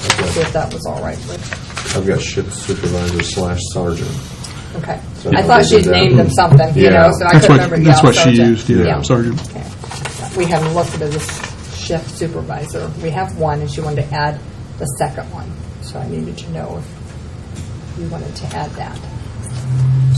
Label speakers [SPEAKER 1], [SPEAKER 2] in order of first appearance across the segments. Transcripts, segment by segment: [SPEAKER 1] see if that was all right with,
[SPEAKER 2] I've got ship supervisor slash sergeant.
[SPEAKER 1] okay.
[SPEAKER 2] So
[SPEAKER 1] I thought she'd
[SPEAKER 2] that-
[SPEAKER 1] named them something, you
[SPEAKER 2] Yeah.
[SPEAKER 1] know, so I
[SPEAKER 3] That's
[SPEAKER 1] couldn't
[SPEAKER 3] what,
[SPEAKER 1] remember.
[SPEAKER 3] that's
[SPEAKER 1] Yeah,
[SPEAKER 3] what she
[SPEAKER 1] sergeant.
[SPEAKER 3] used, yeah, Sergeant.
[SPEAKER 1] Okay. We haven't looked at this shift supervisor. We have one, and she wanted to add the second one, so I needed to know if you wanted to add that.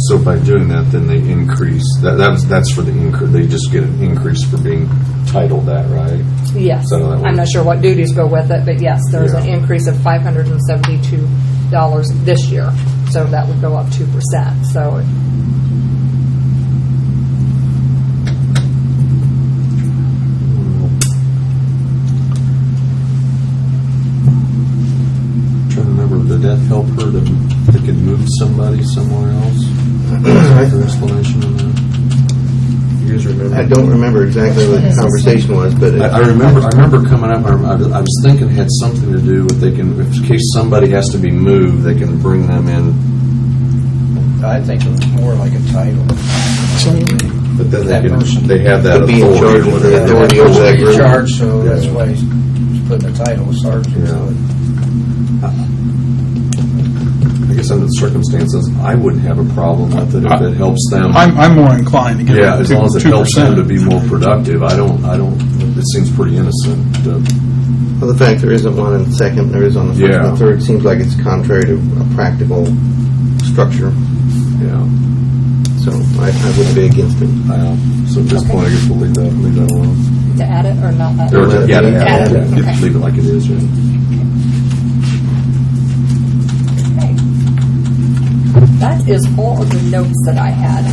[SPEAKER 2] So by doing that, then they increase, that, that's, that's for the increase, they just get an increase for being titled that, right?
[SPEAKER 1] Yes.
[SPEAKER 2] So that would-
[SPEAKER 1] I'm not sure what duties go with it, but yes, there's an
[SPEAKER 2] Yeah.
[SPEAKER 1] increase of $572 this year, so that would go up 2%. So
[SPEAKER 2] Trying to remember, did that help her that they could move somebody somewhere else? Is there explanation on that? You guys remember?
[SPEAKER 4] I don't remember exactly what the conversation was, but it-
[SPEAKER 2] I, I remember, I remember coming up, I rem- I was- I was thinking it had something to do with they can, if- in case somebody has to be moved, they can bring them in,
[SPEAKER 5] I think it was more like a title.
[SPEAKER 2] but then
[SPEAKER 5] That
[SPEAKER 2] they can,
[SPEAKER 5] person.
[SPEAKER 2] they have that
[SPEAKER 4] To be in charge
[SPEAKER 2] authority or
[SPEAKER 4] of the
[SPEAKER 2] whatever.
[SPEAKER 4] authority over that
[SPEAKER 5] You're
[SPEAKER 4] group.
[SPEAKER 5] in charge, so that's
[SPEAKER 2] Yeah.
[SPEAKER 5] why he's he's putting a title, sergeant, to it.
[SPEAKER 2] I guess under the circumstances, I wouldn't have a problem with it if it helps them.
[SPEAKER 3] I'm, I'm more inclined to give
[SPEAKER 2] Yeah,
[SPEAKER 3] it
[SPEAKER 2] as long as it
[SPEAKER 3] two
[SPEAKER 2] helps them to
[SPEAKER 3] percent.
[SPEAKER 2] be more productive, I don't, I don't, it seems pretty innocent. uh, to-
[SPEAKER 4] well, the fact there isn't one in the second, there is on the first and
[SPEAKER 2] Yeah.
[SPEAKER 4] the third, seems like it's contrary to a practical structure,
[SPEAKER 2] Yeah.
[SPEAKER 4] so I I wouldn't be against it.
[SPEAKER 2] Uh, So at this point, I guess we'll leave that, leave that alone.
[SPEAKER 1] to add it or not add it?
[SPEAKER 2] Or
[SPEAKER 4] let
[SPEAKER 2] just-
[SPEAKER 4] it
[SPEAKER 2] Yeah,
[SPEAKER 4] be.
[SPEAKER 2] yeah,
[SPEAKER 1] Add
[SPEAKER 2] yeah,
[SPEAKER 1] it,
[SPEAKER 2] yeah.
[SPEAKER 1] okay.
[SPEAKER 2] leave it like it is, right?
[SPEAKER 1] Okay. That is all of the notes that I had.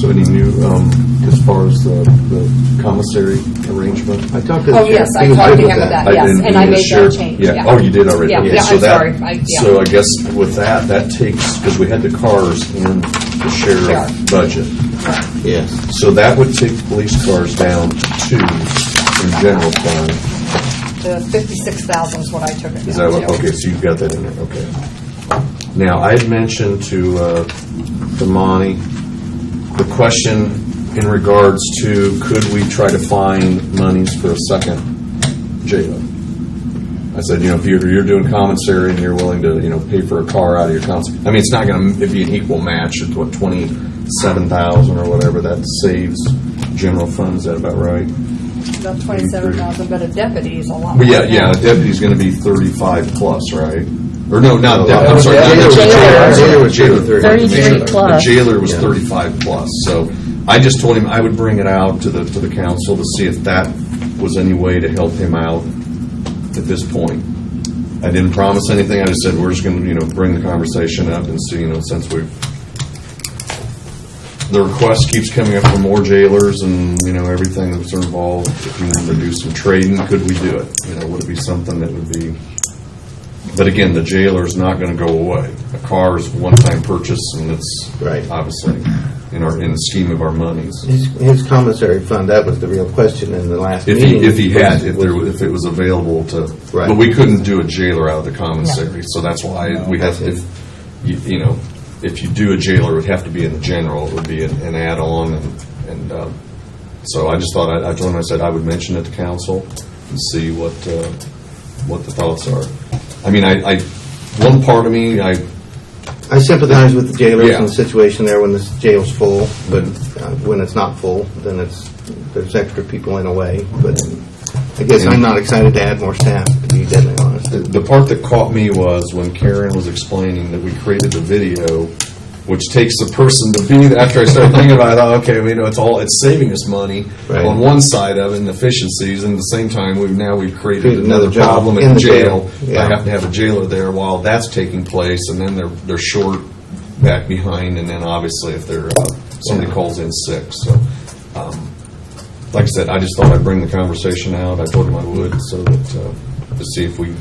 [SPEAKER 2] So any new, um, as far as the the commissary arrangement?
[SPEAKER 4] I talked to the
[SPEAKER 1] Oh,
[SPEAKER 4] sheriff.
[SPEAKER 1] yes, I
[SPEAKER 4] He was
[SPEAKER 1] talked
[SPEAKER 4] good
[SPEAKER 1] to
[SPEAKER 4] with
[SPEAKER 1] him about that,
[SPEAKER 2] I
[SPEAKER 1] yes,
[SPEAKER 2] didn't
[SPEAKER 1] and I
[SPEAKER 2] do the
[SPEAKER 1] made that
[SPEAKER 2] sheriff-
[SPEAKER 1] change,
[SPEAKER 2] Yeah,
[SPEAKER 1] yeah.
[SPEAKER 2] oh, you did already?
[SPEAKER 1] Yeah,
[SPEAKER 2] Okay,
[SPEAKER 1] yeah,
[SPEAKER 2] so
[SPEAKER 1] I'm
[SPEAKER 2] that-
[SPEAKER 1] sorry. I- yeah.
[SPEAKER 2] So I guess with that, that takes, because we had the cars in the
[SPEAKER 1] Sheriff.
[SPEAKER 2] sheriff budget.
[SPEAKER 4] Yes,
[SPEAKER 2] So that would take police cars down to two in general fund.
[SPEAKER 1] The 56,000 is what I took it
[SPEAKER 2] Is that
[SPEAKER 1] down
[SPEAKER 2] what,
[SPEAKER 1] to.
[SPEAKER 2] okay, so you've got that in there, okay. Now, I had mentioned to, uh, to Monty, the question in regards to, could we try to find monies for a second jail? I said, you know, if you're, you're doing commissary and you're willing to, you know, pay for a car out of your council, I mean, it's not gonna, it'd be an equal match, it's what, twenty-seven thousand or whatever, that saves general funds, is that about right?
[SPEAKER 1] About 27,000, but a deputy is a lot.
[SPEAKER 2] Well, yeah,
[SPEAKER 1] more than
[SPEAKER 2] yeah, a
[SPEAKER 1] that.
[SPEAKER 2] deputy's gonna be thirty-five plus, right? Or no, not, de-
[SPEAKER 4] No,
[SPEAKER 2] I'm sorry.
[SPEAKER 4] jailer
[SPEAKER 2] not
[SPEAKER 4] was-
[SPEAKER 2] deputy, I'm sorry,
[SPEAKER 4] jailer was 33.
[SPEAKER 2] jailer.
[SPEAKER 6] 33 plus.
[SPEAKER 2] The jailer was thirty-five plus, so I just told him I would bring it out to the, to the council to see if that was any way to help him out at this point. I didn't promise anything, I just said, we're just gonna, you know, bring the conversation up and see, you know, since we've the request keeps coming up for more jailers and, you know, everything that's involved. If you wanted to do some trading, could we do it? You know, would it be something that would be, but again, the jailer's not gonna go away. A car is a one-time purchase and it's
[SPEAKER 4] Right.
[SPEAKER 2] obviously in our, in the scheme of our monies.
[SPEAKER 4] his his commissary fund, that was the real question in the last
[SPEAKER 2] If
[SPEAKER 4] meeting.
[SPEAKER 2] he, if he had, if there, was- if it was available to,
[SPEAKER 4] Right.
[SPEAKER 2] but we couldn't do a jailer out of the commissary, so that's why we have, if, you you know, if you do a jailer, it would have to be in the general, it would be an an add-on, and, and, um, so I just thought, I I told him, I said I would mention it to council and see what, uh, what the thoughts are. I mean, I, I, one part of me, I,
[SPEAKER 4] I sympathize with the jailers
[SPEAKER 2] Yeah.
[SPEAKER 4] and the situation there when the jail's full, but uh, when it's not full, then it's, there's extra people in a way. But I guess I'm not excited to add more staff, to be deadly honest.
[SPEAKER 2] The- The part that caught me was when Karen was explaining that we created the video, which takes the person to be, after I started thinking about it, I thought, okay, we know, it's all, it's saving us money
[SPEAKER 4] Right.
[SPEAKER 2] on one side of it and efficiencies, and at the same time, we've, now we've created
[SPEAKER 4] Created
[SPEAKER 2] another
[SPEAKER 4] another job
[SPEAKER 2] problem
[SPEAKER 4] in
[SPEAKER 2] in
[SPEAKER 4] the
[SPEAKER 2] jail.
[SPEAKER 4] jail,
[SPEAKER 2] I
[SPEAKER 4] yeah.
[SPEAKER 2] have to have a jailer there while that's taking place, and then they're, they're short back behind, and then obviously if they're, uh, somebody calls in sick, so. um, Like I said, I just thought I'd bring the conversation out, I told him I would, so that, uh, to see if we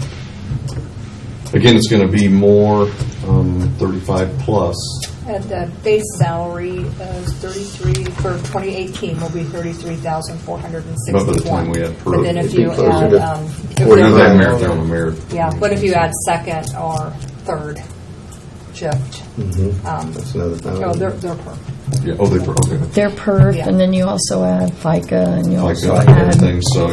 [SPEAKER 2] Again, it's going to be more um, 35 plus.
[SPEAKER 1] And the base salary is 33, for 2018 will be 33,461.
[SPEAKER 2] About the time we had per-
[SPEAKER 1] But then if
[SPEAKER 2] it'd
[SPEAKER 4] be
[SPEAKER 1] you
[SPEAKER 4] closer
[SPEAKER 1] add,
[SPEAKER 4] to
[SPEAKER 1] um, if
[SPEAKER 2] Or
[SPEAKER 1] there
[SPEAKER 2] not that
[SPEAKER 1] were-
[SPEAKER 2] marathon, a marathon.
[SPEAKER 1] yeah, what if you add second or third shift? Um,
[SPEAKER 4] That's another
[SPEAKER 1] Oh,
[SPEAKER 2] Mm-hmm.
[SPEAKER 1] they're,
[SPEAKER 4] thing.
[SPEAKER 1] they're per.
[SPEAKER 2] Yeah, oh, they, per- okay.
[SPEAKER 6] They're perf,
[SPEAKER 1] Yeah.
[SPEAKER 6] and then you also add FICA, and you
[SPEAKER 2] Like
[SPEAKER 6] also
[SPEAKER 2] uh,
[SPEAKER 6] add
[SPEAKER 2] everything, so